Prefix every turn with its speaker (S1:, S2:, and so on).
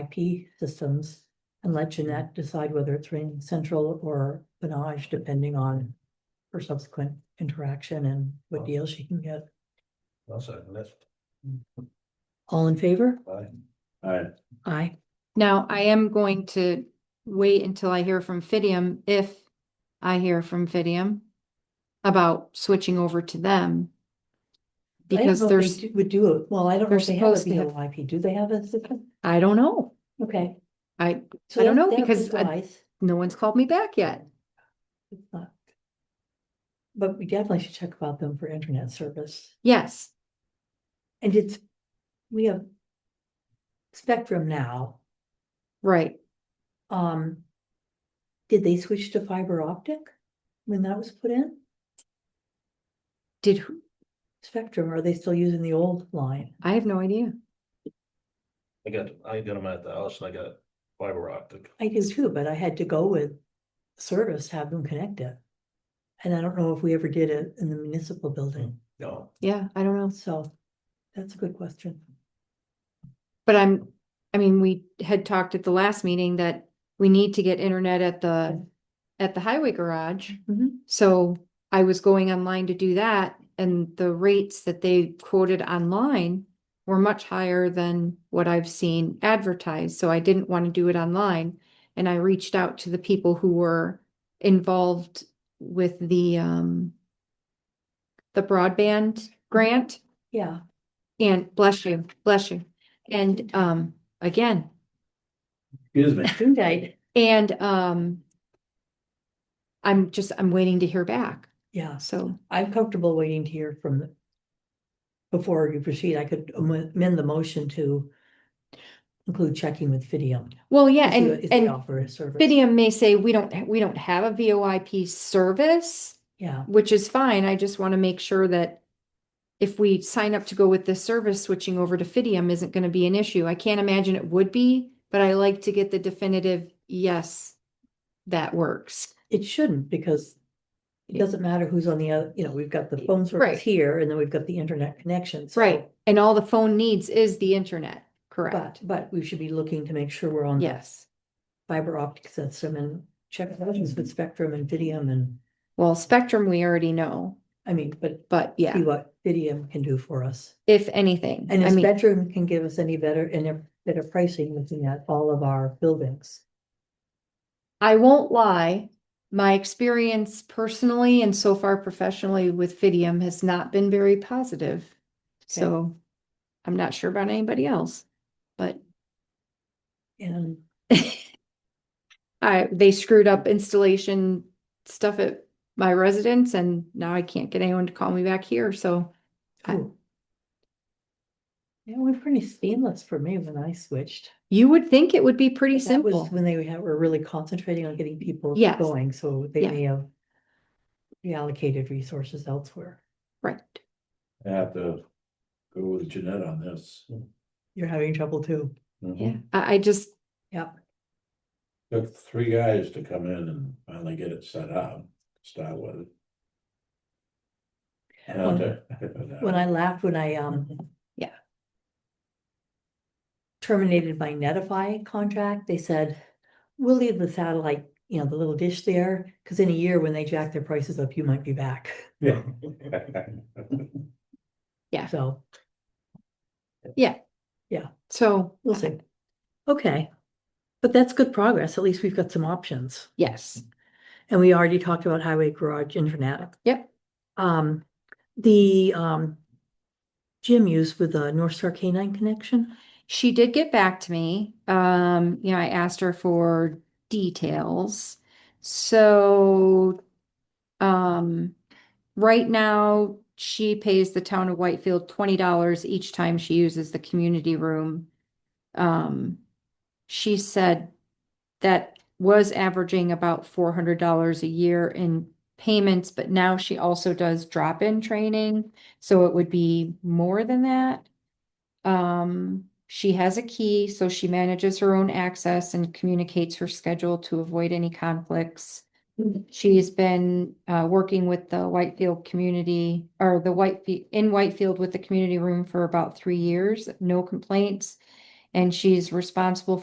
S1: IP systems and let Jeanette decide whether it's Ring Central or Benage, depending on her subsequent interaction and what deal she can get.
S2: I'll second this.
S1: All in favor?
S2: Aye.
S3: Alright,
S1: Aye.
S4: Now, I am going to wait until I hear from Fidium, if I hear from Fidium about switching over to them.
S1: I don't
S4: Because
S1: know if they
S4: there's,
S1: do- Would do it, well, I don't know
S4: they're
S1: if they have a
S4: supposed to have-
S1: VoIP, do they have a system?
S4: I don't know.
S1: Okay.
S4: I,
S1: So
S4: I don't
S1: that-
S4: know,
S1: that would be
S4: because I-
S1: wise.
S4: no one's called me back yet.
S1: It's not- But we definitely should check about them for internet service,
S4: Yes,
S1: and it's, we have Spectrum now,
S4: right.
S1: um. Did they switch to fiber optic when that was put in?
S4: Did, who-
S1: Spectrum, or are they still using the old line?
S4: I have no idea.
S2: I got, I got them at the house and I got fiber optic.
S1: I do too, but I had to go with service, have them connect it. And I don't know if we ever did it in the municipal building,
S2: No,
S4: Yeah, I don't know.
S1: so that's a good question.
S4: But I'm, I mean, we had talked at the last meeting that we need to get internet at the, at the highway garage. So I was going online to do that and the rates that they quoted online were much higher than what I've seen advertised. So I didn't want to do it online. And I reached out to the people who were involved with the um the broadband grant
S1: Yeah,
S4: and bless you, bless you. And um again,
S3: excuse me,
S1: Good night.
S4: and um I'm just I'm waiting to hear back.
S1: Yeah,
S4: So
S1: I'm comfortable waiting to hear from. the- Before you proceed, I could am- amend the motion to include checking with Fidium.
S4: well, yeah,
S1: to see
S4: and
S1: what- if they
S4: and
S1: Offer a service,
S4: Fidium may say, we don't, we don't have a VoIP service,
S1: yeah,
S4: which is fine. I just want to make sure that if we sign up to go with this service, switching over to Fidium isn't going to be an issue. I can't imagine it would be, but I like to get the definitive, yes, that works.
S1: it shouldn't, because. It
S4: Yeah.
S1: doesn't matter who's on the other, you know, we've got the phone
S4: Right.
S1: service here, and then we've got the internet connection. so-
S4: Right. And all the phone needs is the internet,
S1: But,
S4: correct?
S1: but we should be looking to make sure we're on. the
S4: Yes.
S1: Fiber optic system and check versions with Spectrum and Fidium and,
S4: Well, Spectrum, we already know,
S1: I mean, but
S4: but
S1: see
S4: yeah,
S1: what Fidium can do for us.
S4: if anything.
S1: And
S4: I
S1: if
S4: mean,
S1: Spectrum can give us any better, and a better pricing looking at all of our buildings.
S4: I won't lie, my experience personally and so far professionally with Fidium has not been very positive. So I'm not sure about anybody else, but
S1: And
S4: I, they screwed up installation stuff at my residence and now I can't get anyone to call me back here, so. I-
S1: Ooh. It went pretty seamless for me when I switched.
S4: You would think it would be pretty
S1: That was
S4: simple.
S1: When they had- were really concentrating on getting people
S4: Yes.
S1: going, so they
S4: Yeah.
S1: may have reallocated resources elsewhere.
S4: Right.
S3: I have to go with Jeanette on this.
S1: You're having trouble too.
S2: Mm-hmm.
S4: Yeah, I, I just,
S1: Yep.
S3: Took three guys to come in and finally get it set up, start with.
S1: When I laughed when I um.
S4: Mm-hmm. Yeah.
S1: Terminated my Netify contract, they said, we'll leave the satellite, you know, the little dish there, because in a year when they jack their prices up, you might be back,
S3: Yeah.
S4: Yeah.
S1: so
S4: so,
S1: we'll see. Okay, but that's good progress, at least we've got some options,
S4: yes,
S1: and we already talked about highway garage internet.
S4: Yep.
S1: Um, the um. Gym use with the North Star Canine connection,
S4: she did get back to me. Um, you know, I asked her for details. So, um, right now she pays the town of Whitefield twenty dollars each time she uses the community room. Um, she said that was averaging about four hundred dollars a year in payments, but now she also does drop-in training, so it would be more than that. Um, she has a key, so she manages her own access and communicates her schedule to avoid any conflicts. She's been uh, working with the Whitefield community or the Whitefield in Whitefield with the community room for about three years, no complaints. And she's responsible